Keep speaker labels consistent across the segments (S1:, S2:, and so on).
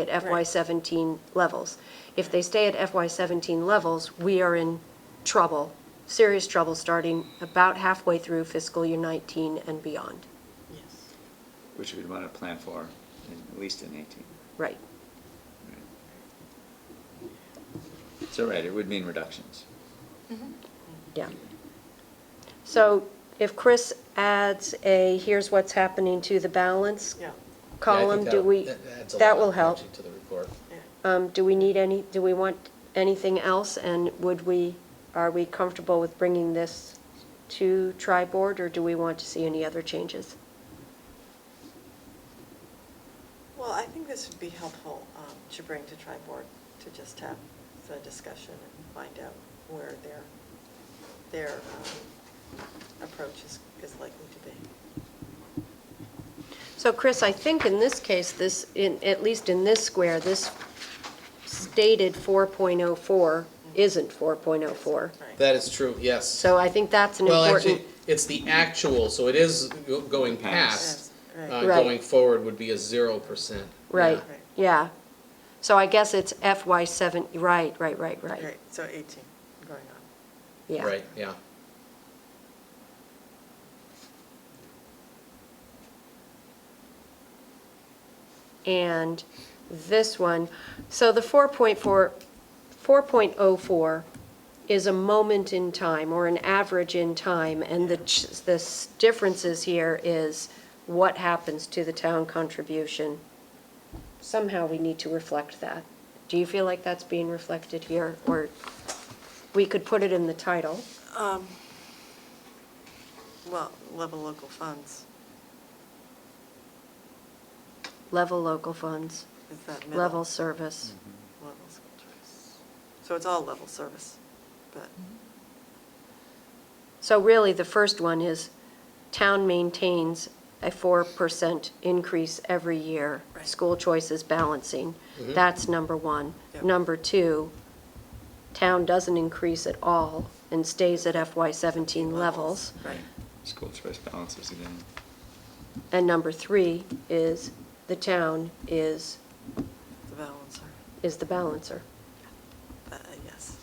S1: at FY17 levels. If they stay at FY17 levels, we are in trouble, serious trouble, starting about halfway through fiscal year 19 and beyond.
S2: Yes.
S3: Which we'd want to plan for, in- at least in 18.
S1: Right.
S3: So, right, it would mean reductions.
S1: Yeah. So if Chris adds a, here's what's happening to the balance
S2: Yeah,
S1: column, do we, that will help.
S4: To the report.
S2: yeah.
S1: Um, Do we need any, do we want anything else? And would we, are we comfortable with bringing this to tri-board, or do we want to see any other changes?
S2: Well, I think this would be helpful um, to bring to tri-board, to just have the discussion and find out where their, their um, approach is, is likely to be.
S1: So Chris, I think in this case, this, in, at least in this square, this stated 4.04 isn't 4.04.
S2: Right.
S4: That is true, yes.
S1: So I think that's an
S4: Well,
S1: important,
S4: actually, it's the actual, so it is go- going past.
S2: Yes,
S4: uh,
S2: right.
S1: Right.
S4: Going forward would be a zero percent.
S1: right,
S2: Right.
S1: yeah. So I guess it's FY 7, right, right, right, right,
S2: Right, so 18 going on.
S1: yeah.
S4: Right, yeah.
S1: and this one. So the 4.4, 4.04 is a moment in time, or an average in time, and the, ch- the s- differences here is what happens to the town contribution. Somehow we need to reflect that. Do you feel like that's being reflected here, or we could put it in the title?
S2: Um, Well, level local funds,
S1: Level local funds,
S2: is that middle?
S1: level service.
S2: Level school choice. So it's all level service, but,
S1: So really, the first one is town maintains a 4% increase every year.
S2: Right.
S1: School choice is balancing.
S4: Mhm.
S1: That's number one.
S2: Yep.
S1: Number two, town doesn't increase at all and stays at FY17 levels.
S2: right,
S3: School choice balances again.
S1: And number three is the town is,
S2: the balancer,
S1: is the balancer.
S2: uh, yes.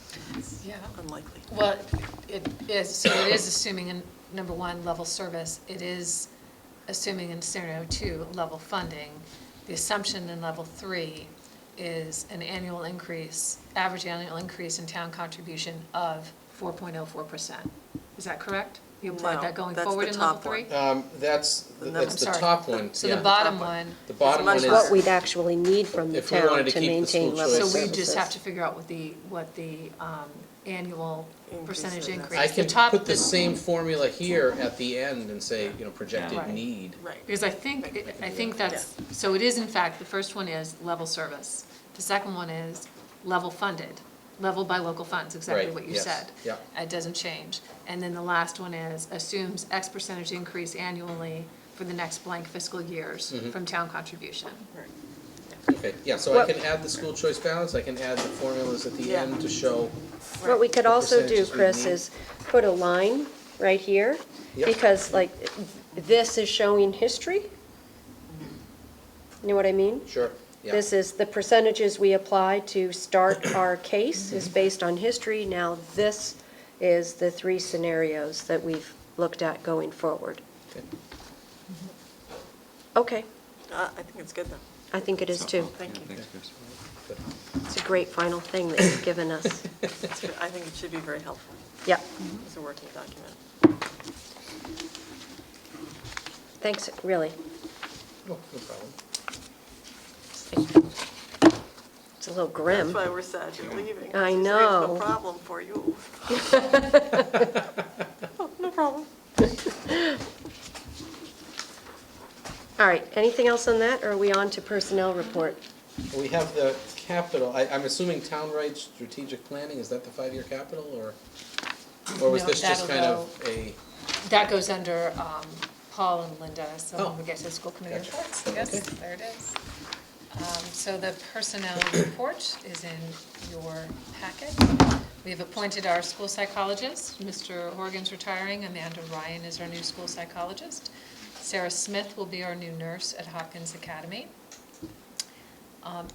S5: Yeah.
S2: Unlikely.
S5: Well, it is, so it is assuming in, number one, level service, it is assuming in scenario two, level funding. The assumption in level three is an annual increase, average annual increase in town contribution of four point oh four percent. Is that correct? You
S2: No,
S5: applied that going
S2: that's
S5: forward
S2: the
S5: in level
S2: top one.
S5: three?
S4: Um, that's,
S2: The
S4: that's
S2: number-
S4: the
S5: Sorry.
S4: top one,
S5: So the
S4: yeah.
S5: bottom
S2: Top one.
S5: one,
S4: The bottom one
S2: much
S4: is.
S1: What we'd actually need from the
S4: If we wanted
S1: town
S4: to
S1: to
S4: keep the school
S1: maintain level
S4: choice-
S1: services.
S5: so we just have to figure out what the, what the, um, annual
S2: Increase
S5: percentage
S2: in that.
S5: increase.
S4: I
S5: The
S4: can
S5: top-
S4: put the same formula here at the end and say, you know, projected
S5: Right.
S4: need.
S2: Right.
S5: Because I think, I think that's, so it is in fact, the first one is level service. The second one is level funded, level by local funds, exactly
S4: Right,
S5: what you
S4: yes,
S5: said.
S4: yeah.
S5: It doesn't change. And then the last one is assumes X percentage increase annually for the next blank fiscal years
S4: Mm-hmm.
S5: from town contribution.
S2: Right.
S4: Okay, yeah, so I
S1: What-
S4: can add the school choice balance, I can add the formulas at the
S2: Yeah.
S4: end to show.
S1: What we could
S4: The
S1: also do,
S4: percentages we
S1: Chris,
S4: need.
S1: is put a line right here,
S4: Yep.
S1: because like, this is showing history. You Know what I mean?
S4: Sure, yeah.
S1: This is the percentages we apply to start our case is based on history. Now, this is the three scenarios that we've looked at going forward.
S4: Okay.
S1: Okay,
S2: Uh, I think it's good though.
S1: I think it is
S3: So-
S1: too.
S2: Thank
S3: yeah,
S2: you.
S3: Thanks, Chris.
S1: It's a great final thing that you've given us.
S2: It's good. I think it should be very helpful
S1: Yep,
S2: as a working document.
S1: thanks, really.
S4: No Oh, no problem.
S1: It's a little grim.
S2: That's why we're sad you're leaving. 'cause
S1: I
S2: it's
S1: know.
S2: No problem for you. Oh, No problem.
S1: All right, anything else on that, or are we on to personnel report?
S4: We have the capital, I, I'm assuming townwide strategic planning, is that the five-year capital, or? Or was
S5: No,
S4: this just kind
S5: that'll
S4: of a,
S5: That goes under um, Paul and Linda, so
S4: Oh.
S5: when we get to the school committee
S4: Gotcha.
S5: reports, yes, there it is. Um, So the personnel report is in your packet. We have appointed our school psychologist, Mr. Horgan's retiring, Amanda Ryan is our new school psychologist. Sarah Smith will be our new nurse at Hopkins Academy. Um,